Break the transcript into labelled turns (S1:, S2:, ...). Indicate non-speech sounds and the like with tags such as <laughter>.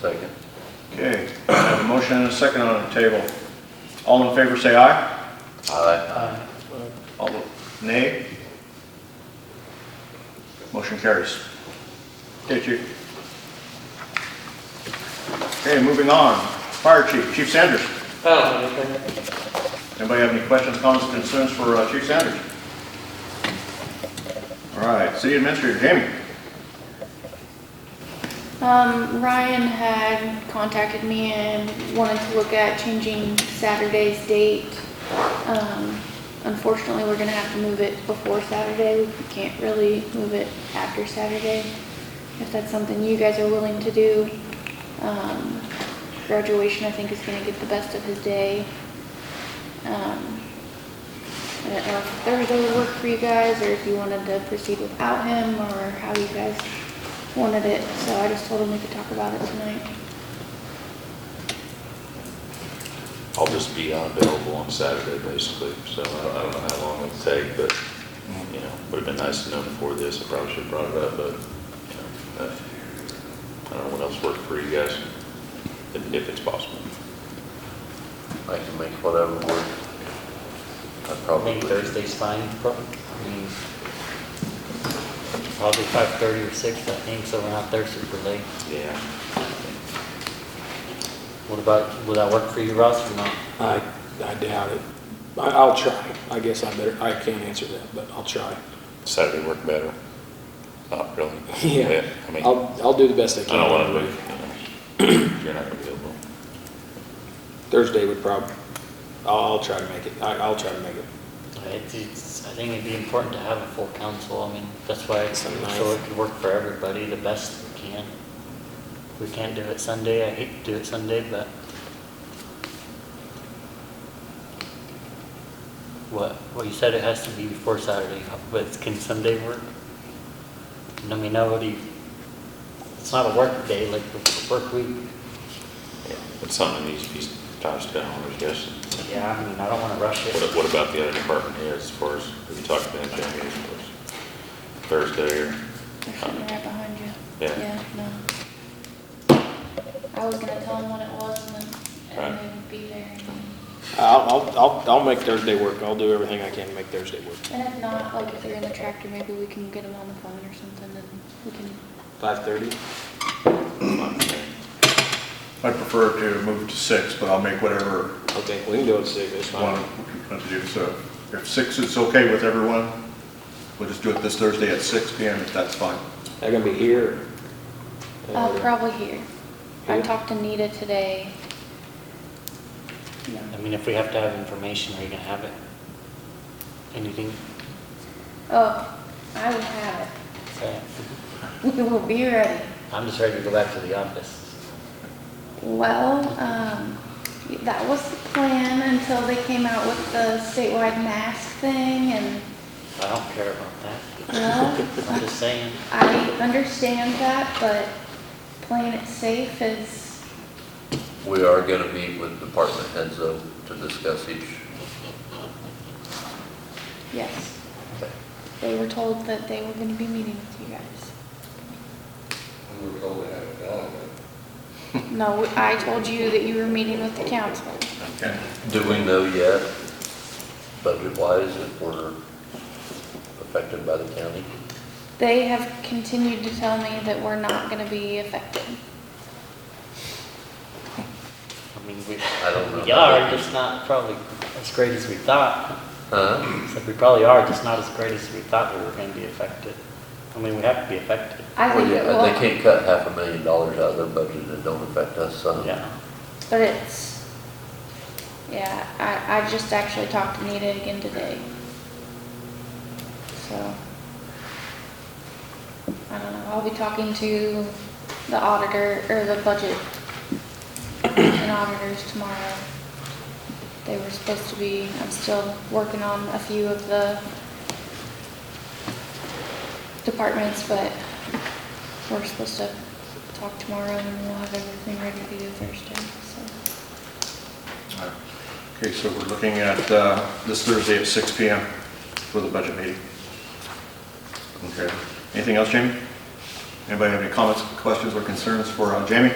S1: Second.
S2: Okay, I have a motion and a second on the table. All in favor, say aye.
S1: Aye.
S2: All nay. Motion carries. Okay, chief. Okay, moving on. Fire chief, Chief Sanders.
S3: Oh, okay.
S2: Anybody have any questions, comments, concerns for uh, Chief Sanders? All right, city administrator, Jamie.
S4: Um, Ryan had contacted me and wanted to look at changing Saturday's date. Um, unfortunately, we're gonna have to move it before Saturday. We can't really move it after Saturday. If that's something you guys are willing to do. Um, graduation, I think, is gonna get the best of his day. Um, I don't know Uh, if Thursday would work for you guys, or if you wanted to proceed without him, or how you guys wanted it, so I just told him we could talk about it tonight.
S1: I'll just be unavailable on Saturday, basically, so I I don't know how long it'll take, but, you know, would've been nice to know before this, I probably should've brought it up, but, you know, uh, I don't know what else worked for you guys, if if it's possible.
S5: I can make whatever work. I
S3: I
S5: probably,
S3: think Thursday's fine, prob- I mean, probably five thirty or six, I think, so we're not there super late.
S1: Yeah.
S3: What about, will that work for you, Russ, or not?
S6: I, I doubt it. I, I'll try. I guess I better, I can't answer that, but I'll try. <laughs>
S1: Saturday worked better. Not really.
S6: Yeah.
S1: I mean, I
S6: I'll, I'll do the best I can.
S1: don't wanna move, you know, if you're not available.
S6: Thursday would probably, I'll, I'll try to make it. I, I'll try to make it.
S3: It's, it's, I think it'd be important to have a full council, I mean, that's why, it's-
S6: Some nice-
S3: so it could work for everybody the best we can. If we can't do it Sunday, I hate to do it Sunday, but. What, well, you said it has to be before Saturday, but can Sunday work? I mean, nobody, it's not a work day, like a work week.
S1: Yeah, It's something that needs to be touched down, I guess.
S3: Yeah, I mean, I don't wanna rush it.
S1: What, what about the other department heads as far as, we talked about Jamie as far as Thursday or,
S4: They're sitting right behind you.
S1: Yeah.
S4: no. I was gonna tell him what it was and then, and
S1: Right.
S4: they would be there. and then-
S6: I'll, I'll, I'll, I'll make Thursday work. I'll do everything I can to make Thursday work.
S4: And if not, like if they're in the tractor, maybe we can get them on the phone or something and we can,
S6: Five thirty?
S2: I'd prefer to move to six, but I'll make whatever
S6: Okay, we can do it at six. It's
S2: one
S6: fine.
S2: want to do. So if six is okay with everyone, we'll just do it this Thursday at six PM if that's fine.
S6: They're gonna be here. or-
S4: uh, probably here. I
S6: Here?
S4: talked to Nita today.
S3: I mean, if we have to have information, are you gonna have it? Anything?
S4: Oh, I would <laughs> have
S3: Okay.
S4: it. We will be ready.
S3: I'm just ready to go back to the office.
S4: Well, um, that was the plan until they came out with the statewide mask thing and,
S3: I don't care about that.
S4: well,
S3: I'm just saying,
S4: I understand that, but playing it safe is,
S5: we are gonna meet with department heads though to discuss each.
S4: yes. They were told that they were gonna be meeting with you guys.
S7: We were told to have it done,
S4: No, I told you that you were meeting with the council.
S2: Okay.
S5: Do we know yet, budget-wise, if we're affected by the county?
S4: They have continued to tell me that we're not gonna be affected.
S3: I mean, we,
S5: I don't know.
S3: we are, just not probably as great as we thought.
S5: Huh?
S3: Except we probably are, just not as great as we thought we were gonna be affected. I mean, we have to be affected,
S4: I
S5: Well,
S4: think
S5: yeah,
S4: it will.
S5: They can't cut half a million dollars out of their budget that don't affect us, so.
S3: yeah.
S4: But it's, yeah, I, I just actually talked to Nita again today. So, I don't know, I'll be talking to the auditor, or the budget and auditors tomorrow. They were supposed to be, I'm still working on a few of the departments, but we're supposed to talk tomorrow and we'll have everything ready to do Thursday, so.
S2: Okay, so we're looking at uh, this Thursday at six PM for the budget meeting. Okay. Anything else, Jamie? Anybody have any comments, questions, or concerns for uh, Jamie?